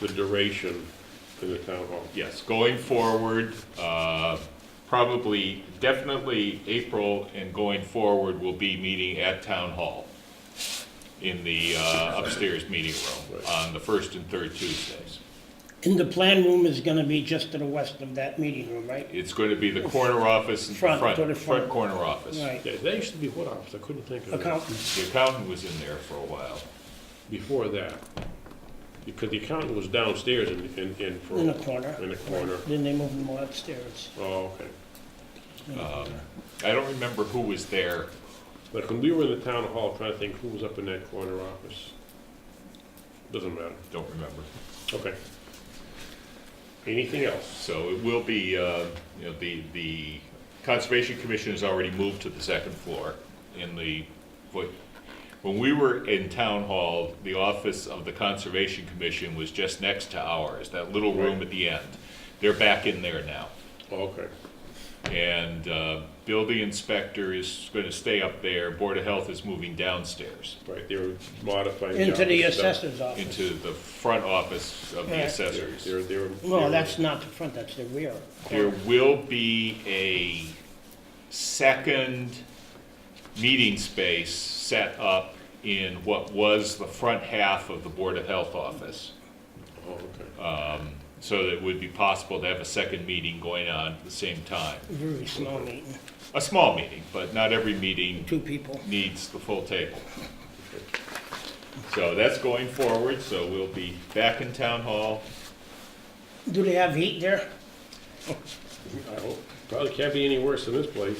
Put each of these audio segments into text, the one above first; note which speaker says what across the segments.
Speaker 1: the duration for the town hall.
Speaker 2: Yes, going forward, uh, probably, definitely April and going forward will be meeting at Town Hall in the uh, upstairs meeting room on the first and third Tuesdays.
Speaker 3: And the plan room is gonna be just to the west of that meeting room, right?
Speaker 2: It's going to be the corner office, and
Speaker 3: Front,
Speaker 2: front,
Speaker 3: go to front.
Speaker 2: front corner office.
Speaker 3: Right,
Speaker 1: Yeah, That used to be what office, I couldn't think of it.
Speaker 3: accountant,
Speaker 2: The accountant was in there for a while.
Speaker 1: Before that, because the accountant was downstairs in, in, in for.
Speaker 3: in the corner.
Speaker 1: In the corner,
Speaker 3: Then they moved them all upstairs.
Speaker 1: oh, okay.
Speaker 2: I don't remember who was there.
Speaker 1: But when we were in the town hall, trying to think who was up in that corner office. Doesn't matter,
Speaker 2: Don't remember.
Speaker 1: okay. Anything else?
Speaker 2: So it will be, uh, you know, the, the Conservation Commission has already moved to the second floor in the, what- when we were in Town Hall, the office of the Conservation Commission was just next to ours, that little room at the end. They're back in there now.
Speaker 1: Okay,
Speaker 2: And uh, building inspector is going to stay up there, Board of Health is moving downstairs
Speaker 1: right, they were modifying.
Speaker 3: Into the
Speaker 1: office stuff.
Speaker 3: assessor's office.
Speaker 2: into the front office of the
Speaker 3: Yeah.
Speaker 1: They're,
Speaker 2: assessors.
Speaker 1: they're- they're.
Speaker 3: No, that's not the front, that's the rear.
Speaker 2: There will be a second meeting space set up in what was the front half of the Board of Health office.
Speaker 1: Oh, okay.
Speaker 2: So that it would be possible to have a second meeting going on at the same time.
Speaker 3: Very small meeting,
Speaker 2: A small meeting, but not every meeting
Speaker 3: two people.
Speaker 2: needs the full table. So that's going forward, so we'll be back in Town Hall.
Speaker 3: Do they have heat there?
Speaker 1: I hope, probably can't be any worse than this place.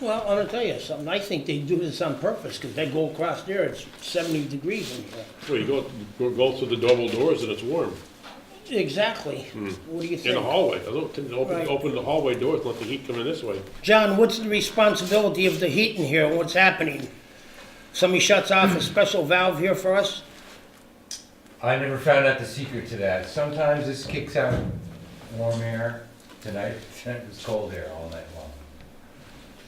Speaker 3: Well, I'm gonna tell you something, I think they do this on purpose, because they go across there, it's seventy degrees in here.
Speaker 1: Well, you go, you go through the double doors and it's warm.
Speaker 3: Exactly. What do you
Speaker 1: Hmm. In the
Speaker 3: think?
Speaker 1: hallway, I don't, think they open,
Speaker 3: Right.
Speaker 1: open the hallway doors, and let the heat come in this way.
Speaker 3: John, what's the responsibility of the heat in here, what's happening? Somebody shuts off a special valve here for us?
Speaker 4: I never found out the secret to that. Sometimes this kicks out warm air. Tonight, tonight it was cold air all night long.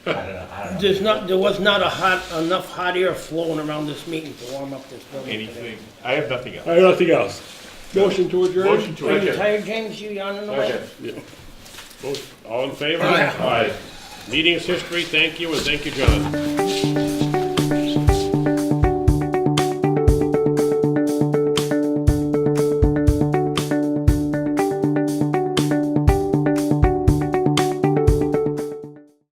Speaker 4: I don't know, I don't know.
Speaker 3: There's not, there was not a hot, enough hot air flowing around this meeting to warm up this building today.
Speaker 2: Anything, I have nothing else.
Speaker 1: I have nothing else. Motion to adjourn?
Speaker 2: Motion to
Speaker 3: Are you
Speaker 2: adjourn.
Speaker 3: tired, James? You yawning away?
Speaker 1: Yeah. Vote. All in favor? Aye. Meeting is history, thank you, and thank you, John.